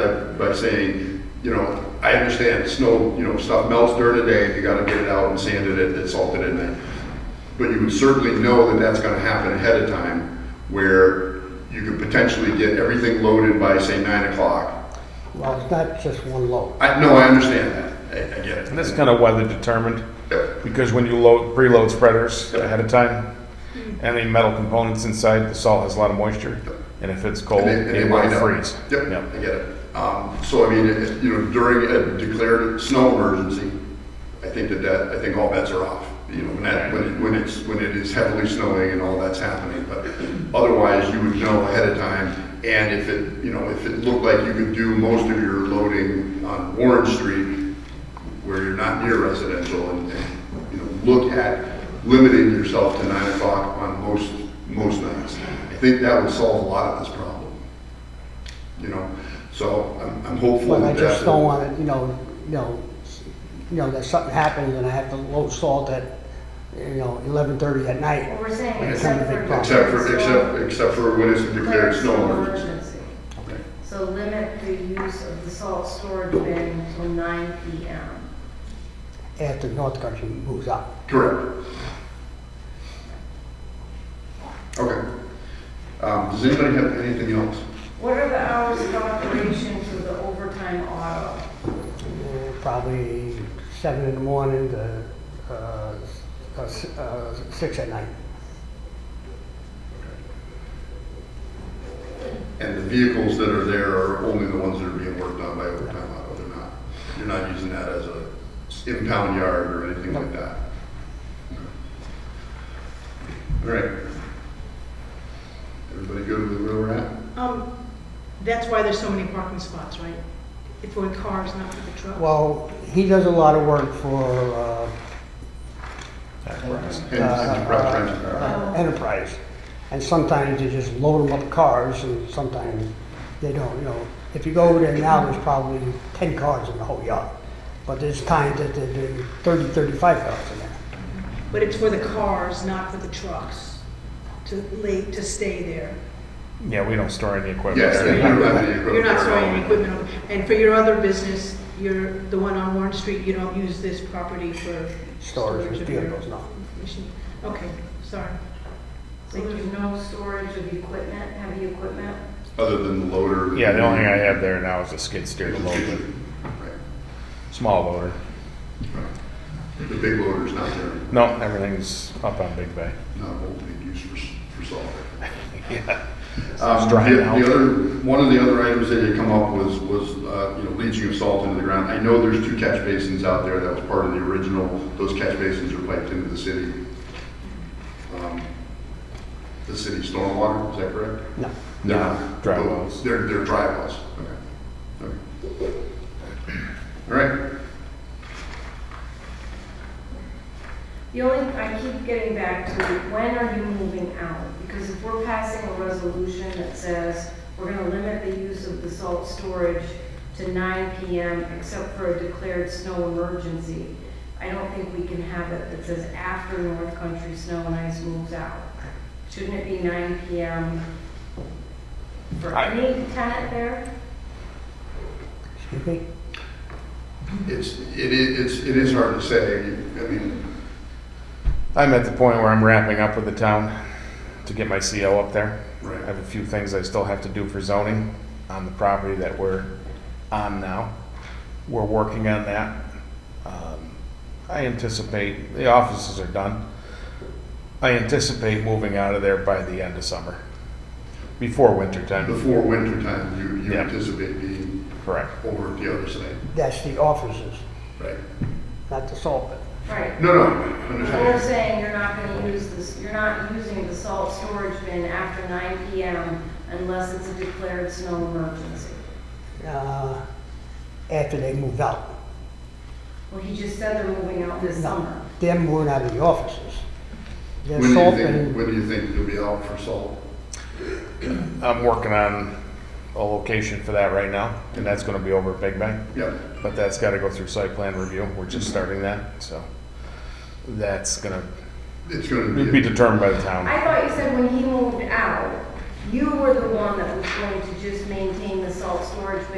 that by saying, you know, I understand snow, you know, stuff melts during the day, you gotta get it out and sand it and salt it in there. But you would certainly know that that's gonna happen ahead of time, where you could potentially get everything loaded by, say, nine o'clock. Well, it's not just one load. I, no, I understand that, I, I get it. And that's kind of weather determined, Yep. because when you load, preload spreaders ahead of time, and the metal components inside, the salt has a lot of moisture, and if it's cold, And they- and they it will wind up. freeze. Yep, Yep. I get it. Um, So I mean, if- you know, during a declared snow emergency, I think that that, I think all bets are off. You know, when that, when it- when it's, when it is heavily snowing and all that's happening. But otherwise, you would know ahead of time. And if it, you know, if it looked like you could do most of your loading on Warren Street, where you're not near residential and, and, you know, look at limiting yourself to nine o'clock on most, most nights. I think that would solve a lot of this problem, you know? So I'm, I'm hopeful But I that just that. don't want it, you know, you know, s- you know, that something happens and I have to load salt at, you know, eleven thirty at night. Well, we're saying It's except not a big for. problem. Except for, so- except, except for when it's a declared snow emergency. emergency. So limit the use of the salt storage bin until nine PM. After North Country moves up. Correct. Okay. Um, does anybody have anything else? What are the hours of operation for the overtime auto? Uh, Probably seven in the morning to, uh, s- uh, s- uh, six at night. And the vehicles that are there are only the ones that are being worked on by overtime auto, they're not, you're not using that as a impound yard or anything like that. All right. Everybody good with where we're at? Um, that's why there's so many parking spots, right? If we're in cars, not for the trucks. Well, he does a lot of work for, uh, Hens- Uh, Enterprise Rent a Car. uh, Enterprise. And sometimes they just load them up cars and sometimes they don't, you know. If you go over there now, there's probably ten cars in the whole yard. But there's times that there- there are thirty, thirty-five cars in there. But it's for the cars, not for the trucks, to lay, to stay there. Yeah, we don't store any equipment. Yes, there. and you don't have any equipment. You're not storing there. any equipment. over- And for your other business, you're, the one on Warren Street, you don't use this property for Storage storage of of your vehicles, no. machine. Okay, sorry. So there's no storage of equipment, heavy equipment? Other than the loader. Yeah, the only thing I have there now is a skid steer to load Right, with, small loader. right. The big loader's not there, No, everything's up on Big Bay. not a whole big use for, s- for salt. Yeah. Um, It's drying the- out. The other, one of the other items that had come up was, was, uh, you know, leaching of salt into the ground. I know there's two catch basins out there, that was part of the original, those catch basins are piped into the city. um, The city stormwater, is that correct? No. They're No, not. dry wells. They're, they're dry wells, okay. Okay. All right, The only, I keep getting back to, when are you moving out? Because if we're passing a resolution that says we're gonna limit the use of the salt storage to nine PM except for a declared snow emergency, I don't think we can have it that says after North Country Snow and Ice moves out. Shouldn't it be nine PM for I- any tenant there? Excuse me? it's, it is, it's- it is hard to say, I mean, I'm at the point where I'm wrapping up with the town to get my CO up there. I right, have a few things I still have to do for zoning on the property that we're on now. We're working on that. Um, I anticipate, the offices are done. I anticipate moving out of there by the end of summer, before winter time. before winter time, you, you Yeah. anticipate being Correct. over at the other side, That's the offices, right? not the salt bin. Right. No, no, We're understand. saying you're not gonna use this, you're not using the salt storage bin after nine PM unless it's a declared snow emergency. Uh, after they moved out. Well, he just said they're moving out this summer. Them moving out of the offices. When Their do you salt think, bin, when do you think you'll be out for salt? I'm working on a location for that right now, and that's gonna be over at Big Bang. Yep, But that's gotta go through site plan review. We're just starting that, so that's gonna it's gonna be be, determined by the town. I thought you said when he moved out, you were the one that was going to just maintain the salt storage bin